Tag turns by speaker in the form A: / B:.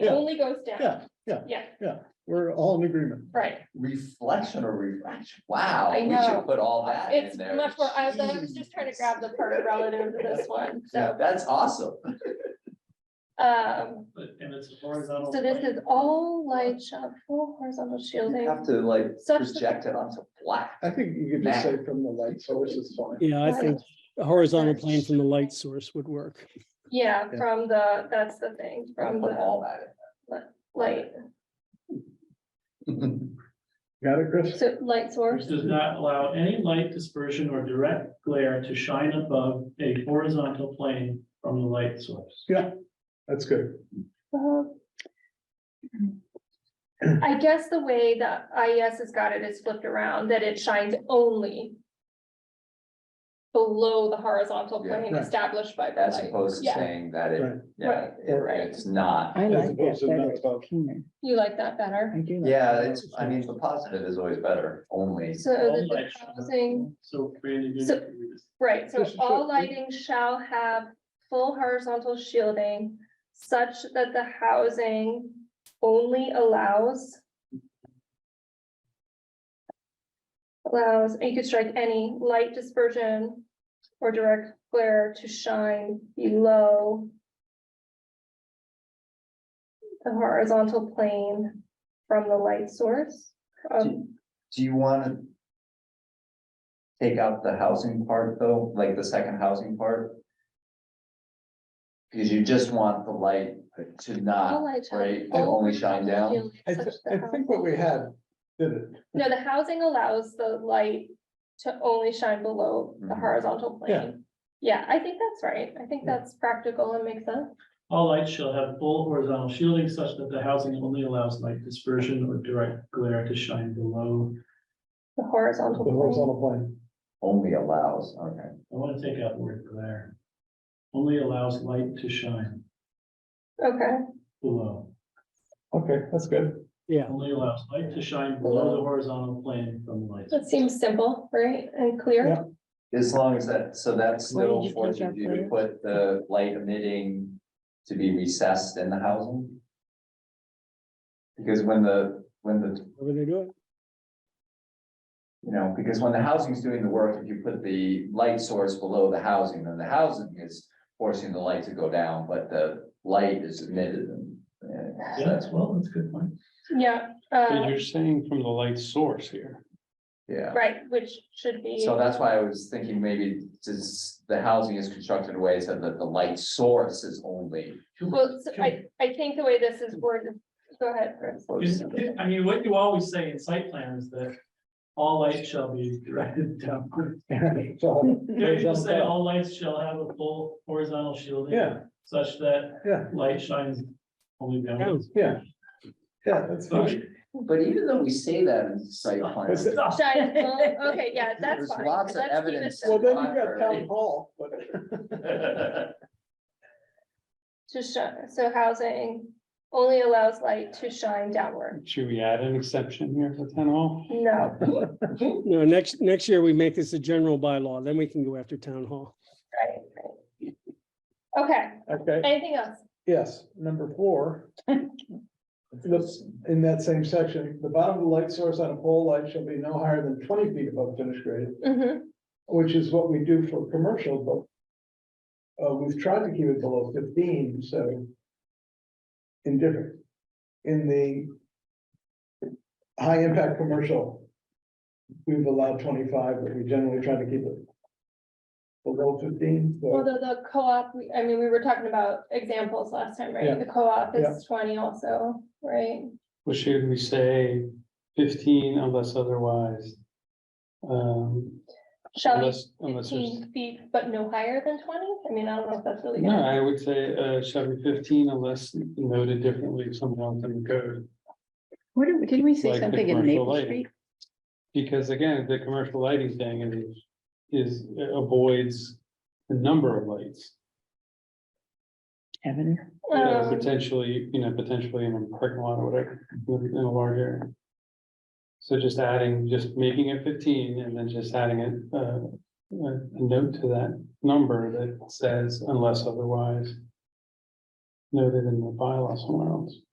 A: It
B: Yeah.
A: only goes down.
B: Yeah, yeah.
A: Yeah.
B: We're all in agreement.
A: Right,
C: Reflection or refraction, wow,
A: I
C: we
A: know.
C: should put all that in
A: it's
C: there.
A: much more, I was, I was just trying to grab the part relative to this one,
C: Mm-hmm. Yeah,
A: so,
C: that's awesome.
A: um.
D: But, and it's horizontal.
A: So this is all light shop, full horizontal
C: You
A: shielding.
C: have to like
A: Such-
C: project it onto black.
B: I think you could just say from the light source is fine.
E: Yeah, I
A: Right.
E: think a horizontal plane from the light source would work.
A: Yeah,
B: Yeah.
A: from the, that's the thing,
C: Gotta
A: from
C: Put
A: the
C: all that
A: light,
C: in.
B: Got it, Chris?
A: so light
D: Which
A: source.
D: does not allow any light dispersion or direct glare to shine above a horizontal plane from the light source.
B: That's good.
A: Uh,
D: Mm-hmm.
A: I guess the way the IES has got it is flipped around, that it shines only below the horizontal
C: Yeah,
A: plane
B: right.
A: established by the
C: As
A: light.
C: opposed to
A: Yeah.
C: saying that it,
B: Right.
C: yeah, it-
A: Right.
C: it's not.
F: I
B: As
F: like that
B: opposed to
F: better,
B: not above.
F: it's keener,
A: You like that better?
F: I do. like
C: Yeah,
F: that.
C: it's, I mean, the positive is always better, only.
A: So that
D: All
A: the
D: light shall-
A: housing,
D: So Brandon, you
A: So-
D: can read this.
A: right, so
B: This is
A: all
B: what-
A: lighting shall have full horizontal shielding such that the housing only allows allows, and you could strike any light dispersion or direct glare to shine below the horizontal plane from the light source. Um,
C: Do you wanna? Take out the housing part though, like the second housing part? Because you just want the light to
A: All
C: not,
A: light shall
C: right, to
A: have full
C: only shine down,
A: shielding
B: I,
A: such
B: thi-
A: that
B: I
A: the
B: think what we had did it.
A: No, the housing allows the light to only shine below the
C: Mhm.
A: horizontal
B: Yeah.
A: plane. Yeah, I think that's right. I think
B: Yeah.
A: that's practical and makes sense.
D: All lights shall have full horizontal shielding such that the housing only allows light dispersion or direct glare to shine below.
A: The
B: The
A: horizontal plane,
B: horizontal plane.
C: only allows, okay.
D: I want to take out the word glare. Only allows light to shine
A: okay,
D: below.
B: Okay, that's good.
E: Yeah,
D: Only allows light to shine below the horizontal plane from the light. source.
A: that seems simple, right, and clear,
B: Yeah.
C: As long as that, so that's
F: Where did
C: still
F: you
C: forces
F: take out
C: you to
F: the-
C: put the light emitting to be recessed in the housing. Because when the, when the,
E: however they do it.
C: you know, because when the housing's doing the work, if you put the light source below the housing, then the housing is forcing the light to go down, but the light is emitted and. and
D: Yeah, that's well, that's a good point.
A: yeah, uh,
G: saying from the light source here.
C: Yeah,
A: right, which should be.
C: so that's why I was thinking maybe just the housing is constructed in a way so that the light source is only.
A: Well, so I, I think the way this is worded, go ahead, Chris.
D: Is- I mean, what you always say in site plans that all lights shall be directed downward.
B: So,
D: There you just say all lights shall have a full horizontal shielding.
B: Yeah.
D: Such that
B: Yeah.
D: light shines only downwards.
B: yeah. Yeah, that's fine.
C: But even though we say that in site plans.
B: That's it.
D: Stop.
A: Shine, well, Okay, yeah, that's
C: There's
A: fine.
C: lots of
A: Let's keep it
C: evidence.
A: simple.
B: Well, then you got town hall, but
A: To shine, so housing only allows light to shine downward,
G: Should we add an exception here for oh? town hall?
A: no,
E: No, next, next year we make this a general bylaw, then we can go after town hall.
A: right, right. Okay,
B: okay,
A: anything else?
B: yes, number four. This, in that same section, the bottom of the light source on a pole light shall be no higher than twenty feet above finished grade.
A: Mhm.
B: which is what we do for commercial, but uh, we've tried to keep it below fifteen, so indifferent. In the high impact commercial, we've allowed twenty-five, but we generally try to keep it below fifteen. so-
A: Although the co-op, we- I mean, we were talking about examples last time,
B: Yeah.
A: right? The co-op is twenty also, right?
G: Or should we say fifteen unless otherwise? Um,
A: Shall be
G: unless, unless there's,
A: fifteen feet, but no higher than twenty? I mean, I don't know if that's really.
G: no,
A: gonna-
G: I would say, uh, shall be fifteen unless noted differently somewhere else in the code.
F: What did, did we
G: Like
F: say
G: the
F: something in
G: commercial
F: Maple
G: lighting.
F: Street?
G: Because again, the commercial lighting thing is, is uh, avoids the number of lights.
F: Avenue?
G: you know,
A: Um,
G: Potentially, you know, potentially in a parking lot or whatever, in a large area. So just adding, just making it fifteen and then just adding it, uh, a a note to that number that says unless otherwise. Noted in the bylaw somewhere else.